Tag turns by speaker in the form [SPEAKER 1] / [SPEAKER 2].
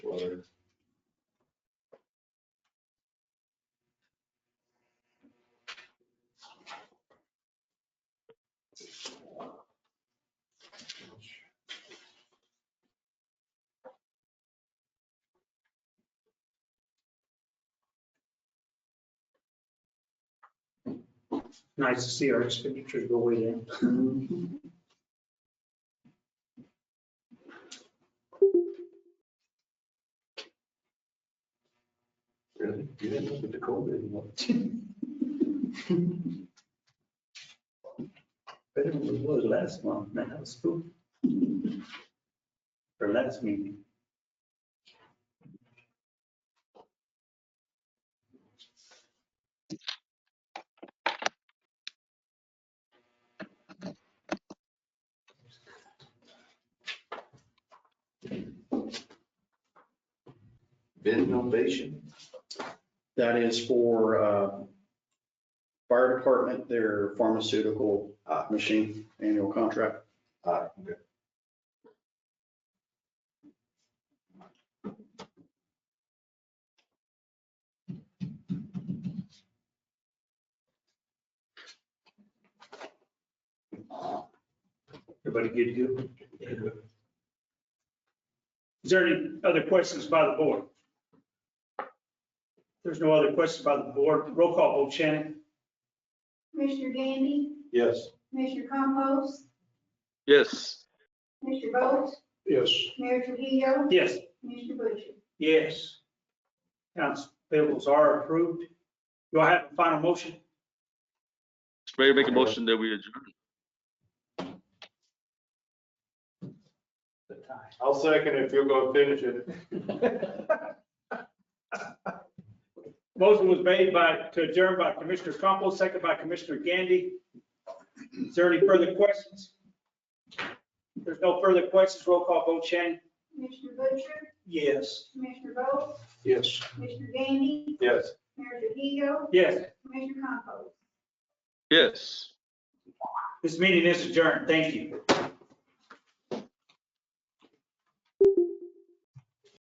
[SPEAKER 1] or?
[SPEAKER 2] Nice to see our expenditures go way down.
[SPEAKER 1] Really? You didn't look at the COVID anymore.
[SPEAKER 3] Better than it was last month, man, that was cool. Or last meeting.
[SPEAKER 1] Bid innovation.
[SPEAKER 4] That is for uh, fire department, their pharmaceutical uh, machine annual contract.
[SPEAKER 1] Uh, okay.
[SPEAKER 2] Everybody good to go? Is there any other questions by the board? If There's no other questions by the board. Roll call vote, Shannon.
[SPEAKER 5] Commissioner Gandy,
[SPEAKER 1] Yes.
[SPEAKER 5] Commissioner Compost,
[SPEAKER 6] yes,
[SPEAKER 5] Commissioner Bolt,
[SPEAKER 1] Yes.
[SPEAKER 5] Mayor Trujillo,
[SPEAKER 2] Yes.
[SPEAKER 5] Commissioner Butcher.
[SPEAKER 2] Yes. Accounts payables are approved. Do I have a final motion?
[SPEAKER 6] Mr. Mayor, make a motion that we adjourn.
[SPEAKER 1] I'll second if you'll go finish it.
[SPEAKER 2] Motion was made by, to adjourn by Commissioner Compost, second by Commissioner Gandy. Is there any further questions? If There's no further questions. Roll call vote, Shannon.
[SPEAKER 5] Commissioner Butcher,
[SPEAKER 2] Yes.
[SPEAKER 5] Commissioner Bolt,
[SPEAKER 1] Yes.
[SPEAKER 5] Commissioner Gandy,
[SPEAKER 1] Yes.
[SPEAKER 5] Mayor Trujillo,
[SPEAKER 2] Yes.
[SPEAKER 5] Commissioner Compost.
[SPEAKER 6] Yes.
[SPEAKER 2] This meeting is adjourned. Thank you.